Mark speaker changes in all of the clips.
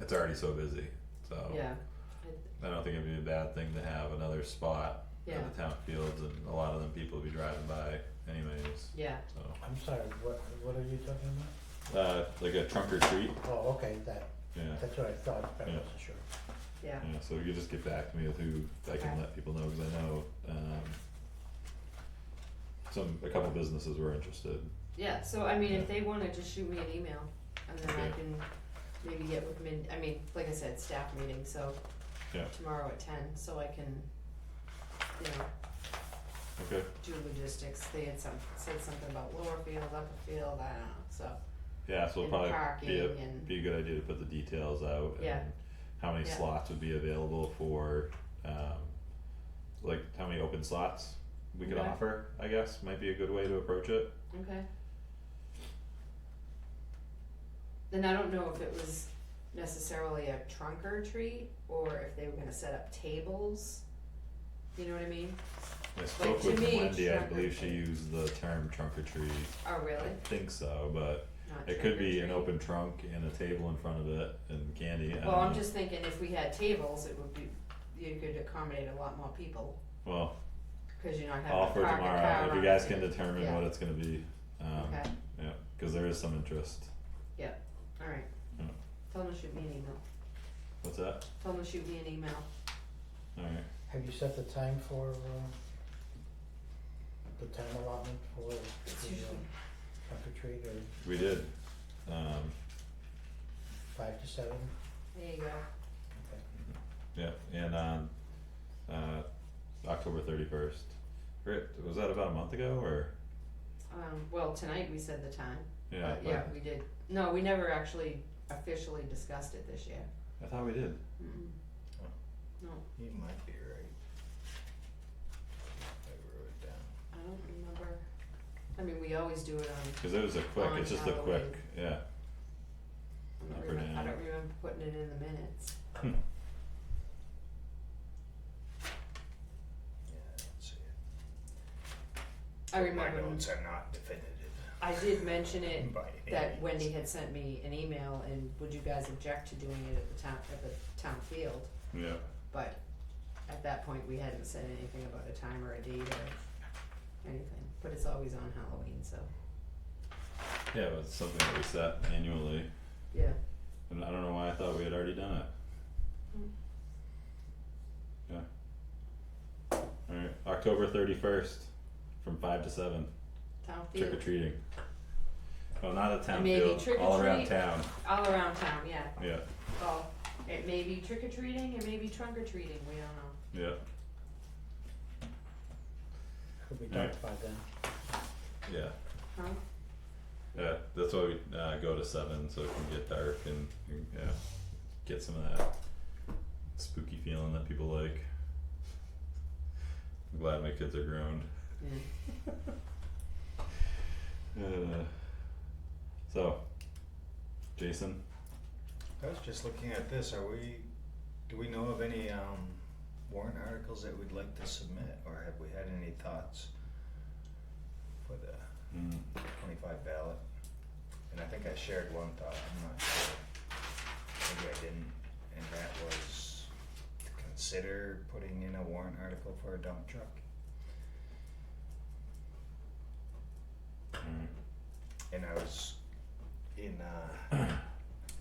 Speaker 1: it's already so busy, so.
Speaker 2: yeah,
Speaker 1: I don't think it'd be a bad thing to have another spot
Speaker 2: yeah,
Speaker 1: at the town fields and a lot of them people will be driving by anyways,
Speaker 2: yeah,
Speaker 1: so.
Speaker 3: I'm sorry, what, what are you talking about?
Speaker 1: Uh, like a trunk or treat,
Speaker 3: Oh, okay, that,
Speaker 1: yeah,
Speaker 3: that's what I thought, but I
Speaker 1: Yeah.
Speaker 3: wasn't sure.
Speaker 2: yeah,
Speaker 1: yeah, so you just get back to me with who I can
Speaker 2: Okay.
Speaker 1: let people know, cause I know, um. Some, a couple businesses were interested,
Speaker 2: yeah, so I mean,
Speaker 1: Yeah.
Speaker 2: if they wanna just shoot me an email, and then I
Speaker 1: Okay.
Speaker 2: can maybe get with Min, I mean, like I said, staff meeting, so
Speaker 1: Yeah.
Speaker 2: tomorrow at ten, so I can, you know,
Speaker 1: okay,
Speaker 2: do logistics, they had some, said something about lower field, upper field, I don't know, so,
Speaker 1: yeah, so it'll
Speaker 2: and
Speaker 1: probably
Speaker 2: parking
Speaker 1: be a,
Speaker 2: and,
Speaker 1: be a good idea to put the details out
Speaker 2: Yeah.
Speaker 1: and how many
Speaker 2: Yeah.
Speaker 1: slots would be available for, um, like how many open slots we could
Speaker 2: Okay.
Speaker 1: offer, I guess, might be a good way to approach it.
Speaker 2: okay. Then I don't know if it was necessarily a trunk or treat, or if they were gonna set up tables, you know what I mean?
Speaker 1: I spoke
Speaker 2: to
Speaker 1: with
Speaker 2: me,
Speaker 1: Wendy, I
Speaker 2: trunk or
Speaker 1: believe she
Speaker 2: treat.
Speaker 1: used the term trunk or treat,
Speaker 2: Oh,
Speaker 1: I
Speaker 2: really?
Speaker 1: think so, but
Speaker 2: Not
Speaker 1: it
Speaker 2: trunk or
Speaker 1: could be an
Speaker 2: treat?
Speaker 1: open trunk and a table in front of it and candy, I don't know.
Speaker 2: Well, I'm just thinking if we had tables, it would be, you could accommodate a lot more people,
Speaker 1: Well,
Speaker 2: cause you're not
Speaker 1: all
Speaker 2: having to
Speaker 1: for
Speaker 2: park a car
Speaker 1: tomorrow, if you
Speaker 2: around
Speaker 1: guys
Speaker 2: it.
Speaker 1: can determine
Speaker 2: Yeah.
Speaker 1: what it's gonna be, um,
Speaker 2: Okay,
Speaker 1: yeah, cause there is some interest,
Speaker 2: alright.
Speaker 1: Yeah.
Speaker 2: Tell them to shoot me an email,
Speaker 1: what's that?
Speaker 2: tell them to shoot me an email.
Speaker 1: Alright,
Speaker 3: Have you set the time for, uh, the time allotment for, the
Speaker 2: It's
Speaker 3: uh,
Speaker 2: usually,
Speaker 3: trunk or treat or
Speaker 1: we did, um,
Speaker 3: five to seven?
Speaker 2: there you go,
Speaker 3: Okay.
Speaker 1: Yeah, and on uh October thirty first. Was that about a month ago or
Speaker 2: um, well, tonight we said the time,
Speaker 1: yeah,
Speaker 2: but
Speaker 1: but
Speaker 2: Uh, yeah, we did, no, we never actually officially discussed it this year.
Speaker 1: I thought we did.
Speaker 2: Mm-mm.
Speaker 4: Oh.
Speaker 2: No,
Speaker 4: You might be right. I wrote it down.
Speaker 2: I don't remember, I mean, we always do it on,
Speaker 1: Cause it was a quick,
Speaker 2: On
Speaker 1: it's just a quick,
Speaker 2: Halloween.
Speaker 1: yeah,
Speaker 2: I
Speaker 1: Up
Speaker 2: don't
Speaker 1: or
Speaker 2: remember, I
Speaker 1: down.
Speaker 2: don't remember putting it in the minutes,
Speaker 4: Yeah, I don't see it.
Speaker 2: I remember.
Speaker 4: My notes are not definitive
Speaker 2: I did mention it
Speaker 4: by any
Speaker 2: that
Speaker 4: means.
Speaker 2: Wendy had sent me an email and would you guys object to doing it at the town, at the town field?
Speaker 1: yeah,
Speaker 2: But at that point, we hadn't said anything about a time or a date or anything, but it's always on Halloween, so,
Speaker 1: yeah, it was something that we set annually,
Speaker 2: yeah.
Speaker 1: and I don't know why I thought we had already done it.
Speaker 2: Hmm.
Speaker 1: Yeah. Alright, October thirty first, from five to seven,
Speaker 2: Town
Speaker 1: trick or
Speaker 2: field,
Speaker 1: treating. Well, not at town
Speaker 2: Maybe
Speaker 1: field,
Speaker 2: trick or
Speaker 1: all around
Speaker 2: treat.
Speaker 1: town,
Speaker 2: all around town, yeah,
Speaker 1: yeah,
Speaker 2: well, it may be trick or treating, it may be trunk or treating, we don't know.
Speaker 1: yeah,
Speaker 3: Could we
Speaker 1: Alright.
Speaker 3: talk about that?
Speaker 1: yeah.
Speaker 2: Huh?
Speaker 1: Yeah, that's why we uh, go to seven so it can get dark and yeah, get some of that spooky feeling that people like. I'm glad my kids are grown.
Speaker 2: Yeah.
Speaker 1: Uh, so, Jason,
Speaker 4: I was just looking at this, are we, do we know of any um warrant articles that we'd like to submit, or have we had any thoughts? For the
Speaker 1: mm,
Speaker 4: twenty-five ballot, and I think I shared one thought, I'm not sure, maybe I didn't, and that was to consider putting in a warrant article for a dump truck.
Speaker 1: alright,
Speaker 4: and I was in uh,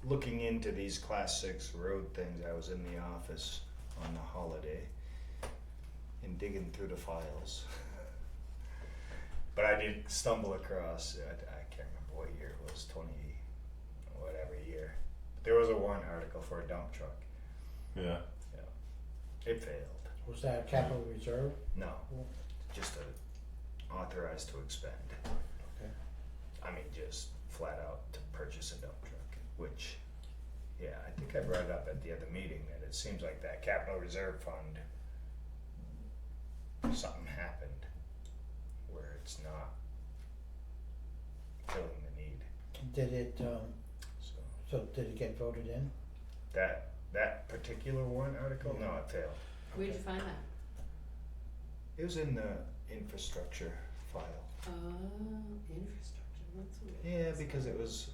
Speaker 4: looking into these class six road things. I was in the office on the holiday and digging through the files, but I did stumble across. I, I can't remember what year it was, twenty, whatever year. There was a warrant article for a dump truck.
Speaker 1: yeah,
Speaker 4: It failed.
Speaker 3: Was that capital reserve?
Speaker 4: No, just a authorized to expend.
Speaker 3: Okay.
Speaker 4: I mean, just flat out to purchase a dump truck, which, yeah, I think I brought it up at the other meeting that it seems like that capital reserve fund, something happened where it's not filling the need,
Speaker 3: Did it, um,
Speaker 4: so.
Speaker 3: so did it get voted in?
Speaker 4: That, that particular one article, no, it failed.
Speaker 2: Where'd you find that?
Speaker 4: It was in the infrastructure file.
Speaker 2: Oh, Uh, infrastructure, that's weird.
Speaker 4: Yeah, because it was